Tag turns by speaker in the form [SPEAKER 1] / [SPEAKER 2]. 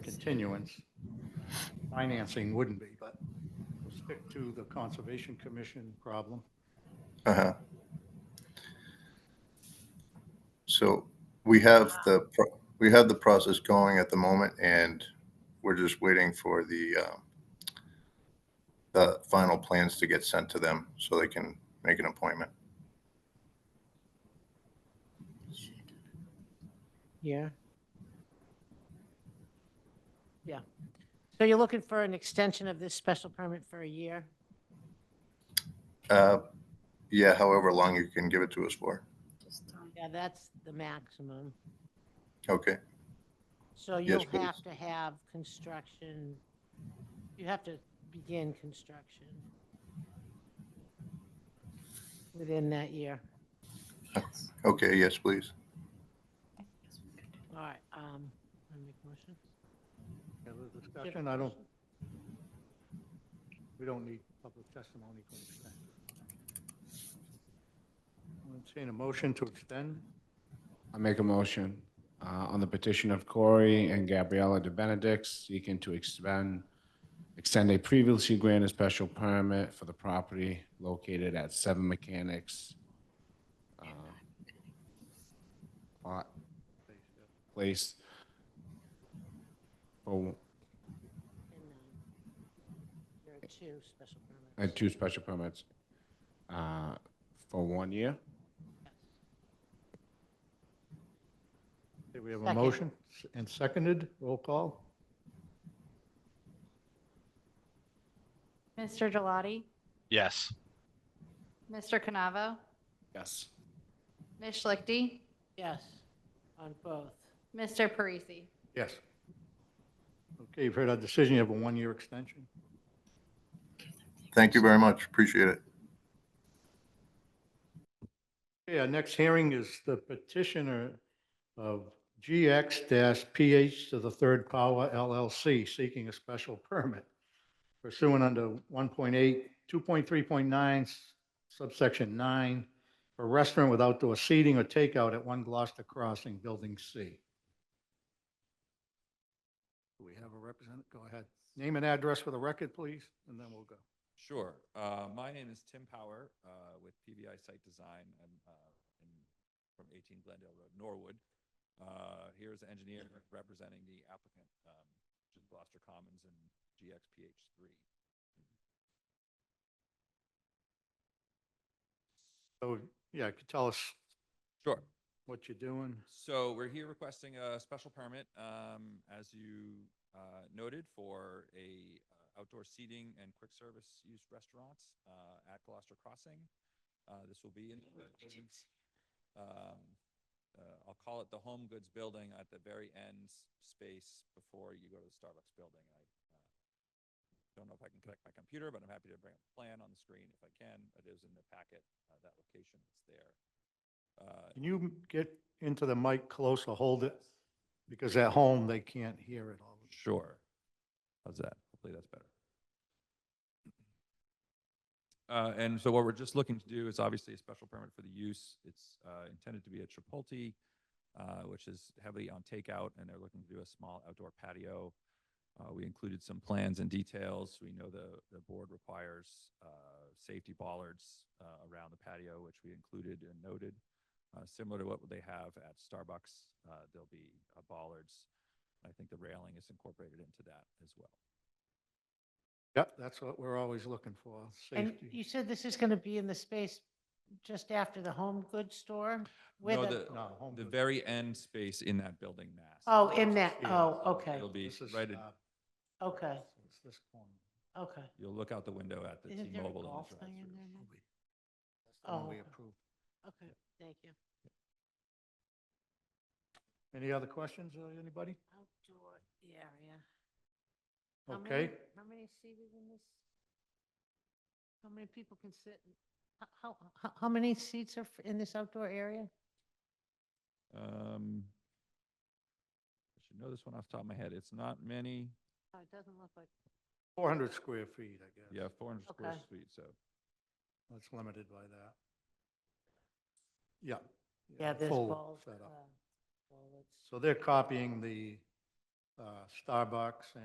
[SPEAKER 1] continuance. Financing wouldn't be, but we'll stick to the Conservation Commission problem.
[SPEAKER 2] Uh-huh. So we have the, pro- we have the process going at the moment and we're just waiting for the, um, the final plans to get sent to them so they can make an appointment.
[SPEAKER 3] Yeah. Yeah. So you're looking for an extension of this special permit for a year?
[SPEAKER 2] Uh, yeah, however long you can give it to us for.
[SPEAKER 3] Yeah, that's the maximum.
[SPEAKER 2] Okay,
[SPEAKER 3] So
[SPEAKER 2] Yes,
[SPEAKER 3] you'll have
[SPEAKER 2] please.
[SPEAKER 3] to have construction, you have to begin construction within that year.
[SPEAKER 2] okay, yes, please.
[SPEAKER 3] All right. um, let me make a motion.
[SPEAKER 1] Yeah, the discussion, I don't, we don't need public testimony to extend. I'm seeing a motion to extend.
[SPEAKER 4] I make a motion uh, on the petition of Corey and Gabriella De Benedict seeking to expend, extend a previously granted special permit for the property located at Seven Mechanics uh, Lot Place for
[SPEAKER 3] And, um, There are two special
[SPEAKER 4] I had
[SPEAKER 3] permits.
[SPEAKER 4] two special permits uh, for one year.
[SPEAKER 1] Okay, We have a
[SPEAKER 3] Second.
[SPEAKER 1] motion and seconded, roll call.
[SPEAKER 5] Mr. Gelati,
[SPEAKER 6] Yes.
[SPEAKER 5] Mr. Canavo,
[SPEAKER 4] Yes.
[SPEAKER 5] Ms. Schlichty,
[SPEAKER 3] Yes, on both.
[SPEAKER 5] Mr. Parisi.
[SPEAKER 1] Yes. Okay, you've heard our decision, you have a one-year extension.
[SPEAKER 2] Thank you very much. Appreciate it.
[SPEAKER 1] Okay, our next hearing is the petitioner of GX-PH to the Third Power LLC seeking a special permit pursuant under 1.8, 2.3.9 subsection 9 for restaurant with outdoor seating or takeout at 1 Gloucester Crossing, Building C. Do we have a representative? Go ahead. Name and address for the record, please, and then we'll go.
[SPEAKER 7] Sure. Uh, my name is Tim Power uh, with PBI Site Design. I'm uh, in, from 18 Glendale Road, Norwood. Uh, here is the engineer representing the applicant, um, which is Gloucester Commons and GXPH3.
[SPEAKER 1] So, yeah, could tell us
[SPEAKER 7] Sure.
[SPEAKER 1] what you're doing?
[SPEAKER 7] So we're here requesting a special permit, um, as you, uh, noted, for a uh, outdoor seating and quick service use restaurant, uh, at Gloucester Crossing. Uh, this will be in, the buildings, um, uh, I'll call it the Home Goods Building at the very end space before you go to the Starbucks building. I uh, Don't know if I can connect my computer, but I'm happy to bring up a plan on the screen if I can. It is in the packet, uh, that location is there. Uh,
[SPEAKER 1] Can you get into the mic closer, hold it? Because at home, they can't hear it all.
[SPEAKER 7] Sure. How's that? Hopefully that's better. Uh, and so what we're just looking to do is obviously a special permit for the use. It's, uh, intended to be a Chipotle, uh, which is heavily on takeout and they're looking to do a small outdoor patio. Uh, we included some plans and details. We know the, the board requires, uh, safety bollards, uh, around the patio, which we included and noted. Uh, similar to what they have at Starbucks, uh, there'll be uh, bollards I think the railing is incorporated into that as well.
[SPEAKER 1] Yep, that's what we're always looking for,
[SPEAKER 3] And
[SPEAKER 1] safety.
[SPEAKER 3] you said this is going to be in the space just after the home goods store? where
[SPEAKER 7] No,
[SPEAKER 3] the-
[SPEAKER 7] the-
[SPEAKER 1] No, home
[SPEAKER 7] The
[SPEAKER 1] goods.
[SPEAKER 7] very end space in that building mass.
[SPEAKER 3] Oh, in that,
[SPEAKER 1] Yeah.
[SPEAKER 3] oh, okay,
[SPEAKER 7] It'll be
[SPEAKER 1] This is,
[SPEAKER 7] right, at-
[SPEAKER 1] uh,
[SPEAKER 3] okay,
[SPEAKER 1] it's this corner.
[SPEAKER 3] okay.
[SPEAKER 7] you'll look out the window at the
[SPEAKER 3] Isn't there a
[SPEAKER 7] T-Mobile.
[SPEAKER 3] golf
[SPEAKER 7] and the
[SPEAKER 3] thing in
[SPEAKER 7] drive-thru.
[SPEAKER 3] there? now?
[SPEAKER 1] That's the one
[SPEAKER 3] Mm-hmm. Oh.
[SPEAKER 1] we approved.
[SPEAKER 3] Okay, thank you.
[SPEAKER 1] Any other questions, uh, anybody?
[SPEAKER 3] Outdoor area. How many-
[SPEAKER 1] Okay,
[SPEAKER 3] How many seated in this? How many people can sit? in- h- How, how, how many seats are f- in this outdoor area?
[SPEAKER 7] Um, I should know this one off the top of my head. It's not many.
[SPEAKER 3] Oh, It doesn't look like,
[SPEAKER 1] 400 square feet, I guess.
[SPEAKER 7] Yeah, four hundred square
[SPEAKER 3] Okay.
[SPEAKER 7] feet, so.
[SPEAKER 1] That's limited by that. Yeah.
[SPEAKER 3] yeah, there's
[SPEAKER 1] full
[SPEAKER 3] balls.
[SPEAKER 1] setup.
[SPEAKER 3] uh, ballards.
[SPEAKER 1] So they're copying the uh, Starbucks